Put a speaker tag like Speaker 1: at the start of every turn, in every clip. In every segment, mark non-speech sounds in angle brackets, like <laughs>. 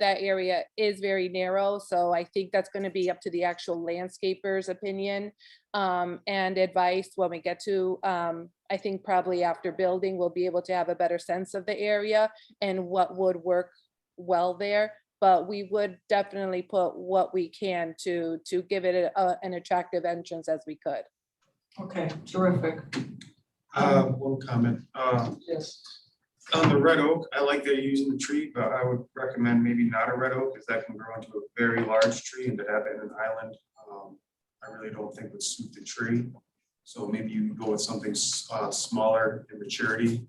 Speaker 1: that area is very narrow, so I think that's gonna be up to the actual landscaper's opinion um, and advice when we get to, um, I think probably after building, we'll be able to have a better sense of the area and what would work well there. But we would definitely put what we can to, to give it a- a, an attractive entrance as we could.
Speaker 2: Okay, terrific,
Speaker 3: Uh, one comment, uh,
Speaker 2: yes.
Speaker 3: on the red oak, I like they're using the tree, but I would recommend maybe not a red oak, because that can grow into a very large tree and to have it in an island, um, I really don't think would suit the tree. So maybe you can go with something, s- uh, smaller in maturity,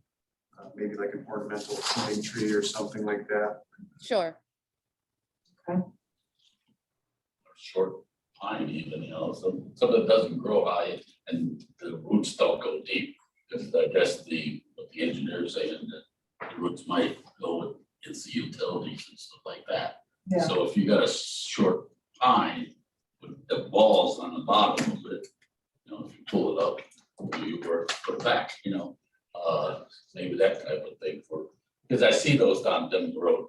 Speaker 3: uh, maybe like an ornamental fruiting tree or something like that.
Speaker 1: Sure.
Speaker 4: or short pine even, you know, some, some that doesn't grow high and the roots don't go deep. Because I guess the, what the engineers saying that the roots might go with, it's the utilities and stuff like that.
Speaker 2: Yeah.
Speaker 4: So if you got a short pine with the balls on the bottom of it, you know, if you pull it up, you work, put it back, you know. Uh, maybe that type of thing for, because I see those down Denver Road,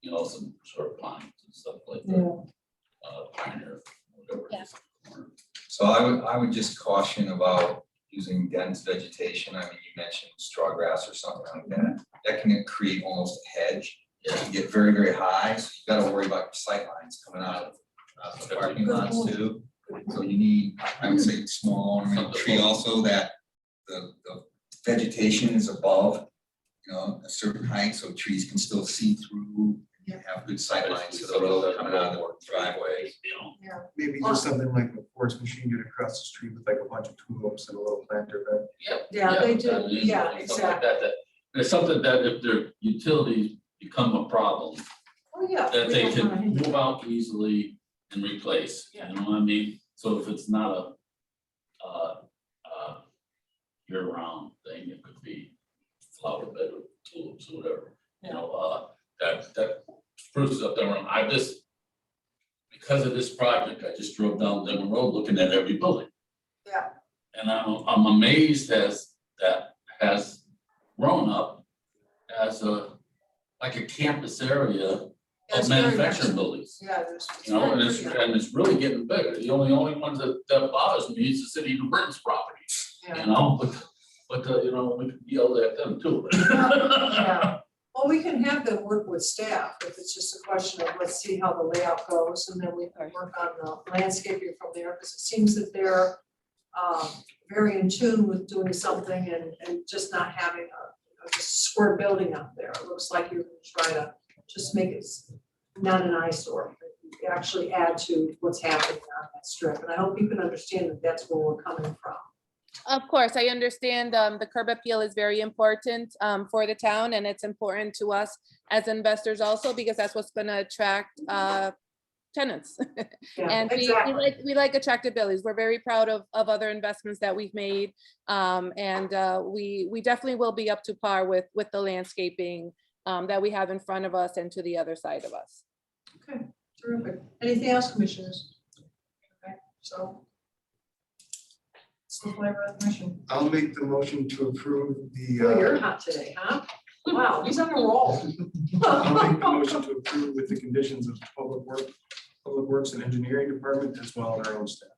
Speaker 4: you know, some short pines and stuff like that
Speaker 2: Yeah,
Speaker 4: uh, Pioneer, whatever. it is. Uh,
Speaker 5: So I would, I would just caution about using dense vegetation. I mean, you mentioned straw grass or something like that. That can create almost a hedge. It can get very, very high, so you gotta worry about your sight lines coming out of, out of the parking lots too. So you need, I would say, small ornamental tree also that the, the vegetation is above, you know, a certain height, so trees can still see through. and Have good sight lines to the road coming out of the driveway.
Speaker 4: You know,
Speaker 3: Maybe just something like a forest machine get across the street with like a bunch of tulips and a little planter bed.
Speaker 2: Yeah, they do,
Speaker 4: and
Speaker 2: yeah,
Speaker 4: something like
Speaker 2: exactly.
Speaker 4: that, that- There's something that if their utilities become a problem,
Speaker 2: Oh, yeah.
Speaker 4: that
Speaker 2: we
Speaker 4: they
Speaker 2: don't wanna
Speaker 4: can
Speaker 2: hinder-
Speaker 4: move out easily and replace, you know what I mean? So if it's not a, uh, uh, year-round thing, it could be flower bed or tulips or whatever, you know, uh, that, that spruces up there, I just, because of this project, I just drove down Denver Road looking at every building.
Speaker 2: Yeah,
Speaker 4: And I'm, I'm amazed as, that has grown up as a, like a campus area
Speaker 2: yeah, it's
Speaker 4: of
Speaker 2: very
Speaker 4: manufacturing
Speaker 2: nice.
Speaker 4: buildings.
Speaker 2: Yeah, there's.
Speaker 4: You know, and it's, and it's really getting bigger. The only, only ones that, that bothers me is the city of New Britain's property, you know, but, but, uh, you know, we could yell at them too. <laughs>
Speaker 2: Yeah. Well, we can have them work with staff, if it's just a question of, let's see how the layout goes, and then we can work on the landscaping from there, because it seems that they're um, very in tune with doing something and, and just not having a, a just square building up there. It looks like you're gonna try to just make it s- not an eyesore, but actually add to what's happening on that strip. And I hope you can understand that that's where we're coming from.
Speaker 1: Of course, I understand um, the curb appeal is very important um, for the town and it's important to us as investors also because that's what's going to attract uh, tenants.
Speaker 2: <laughs> Yeah,
Speaker 1: And we, we
Speaker 2: exactly.
Speaker 1: like, we like attractive buildings. We're very proud of, of other investments that we've made. Um, and, uh, we, we definitely will be up to par with, with the landscaping, um, that we have in front of us and to the other side of us.
Speaker 2: Okay, terrific. Anything else, commissioners? Okay, so. So whatever the motion.
Speaker 3: I'll make the motion to approve the, uh.
Speaker 2: Oh, you're hot today, huh? Wow, he's on a roll. Oh.
Speaker 3: I'll make the motion to approve with the conditions of Public Work, Public Works and Engineering Department as well as our own staff.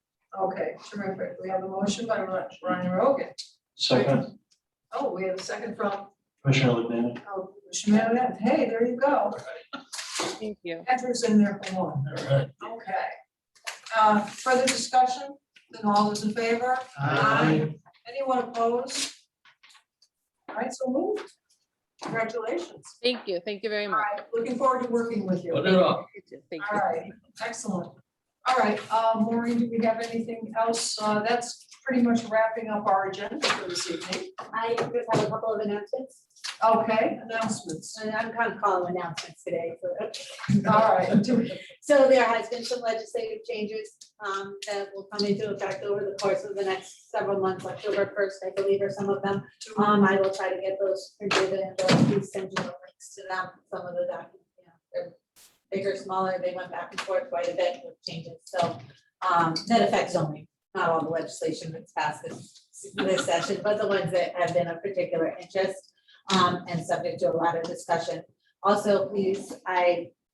Speaker 2: Okay, terrific. We have a motion by Ri- Ryan Rogan.
Speaker 6: Second,
Speaker 2: Oh, we have a second from,
Speaker 6: Commissioner Lebannon.
Speaker 2: oh, Commissioner Mayor, hey, there you go.
Speaker 1: Thank you.
Speaker 2: Andrew's in there for one.
Speaker 4: All right.
Speaker 2: Okay. Uh, further discussion? Then all those in favor? Aye. Anyone opposed? All right, so moved. Congratulations.
Speaker 1: Thank you. Thank you very
Speaker 2: All
Speaker 1: much.
Speaker 2: right, looking forward to working with you.
Speaker 4: Put it up.
Speaker 1: Thank
Speaker 2: All
Speaker 1: you.
Speaker 2: right, excellent. All right, uh, Maureen, do we have anything else? Uh, That's pretty much wrapping up our agenda for this evening.
Speaker 7: I just have a couple of announcements,
Speaker 2: Okay, announcements.
Speaker 7: and I'm kind of calling announcements today. so-
Speaker 2: All right, do we-
Speaker 7: So there has been some legislative changes um, that will come into effect over the course of the next several months, October first, I believe, are some of them. Um, I will try to get those printed and those, please send you the links to them, some of the documents, you know, they're bigger, smaller, they went back and forth quite a bit with changes, so, um, that affects only, not all the legislation that's passed this, this session, but the ones that have been of particular interest, um, and subject to a lot of discussion. Also, please, I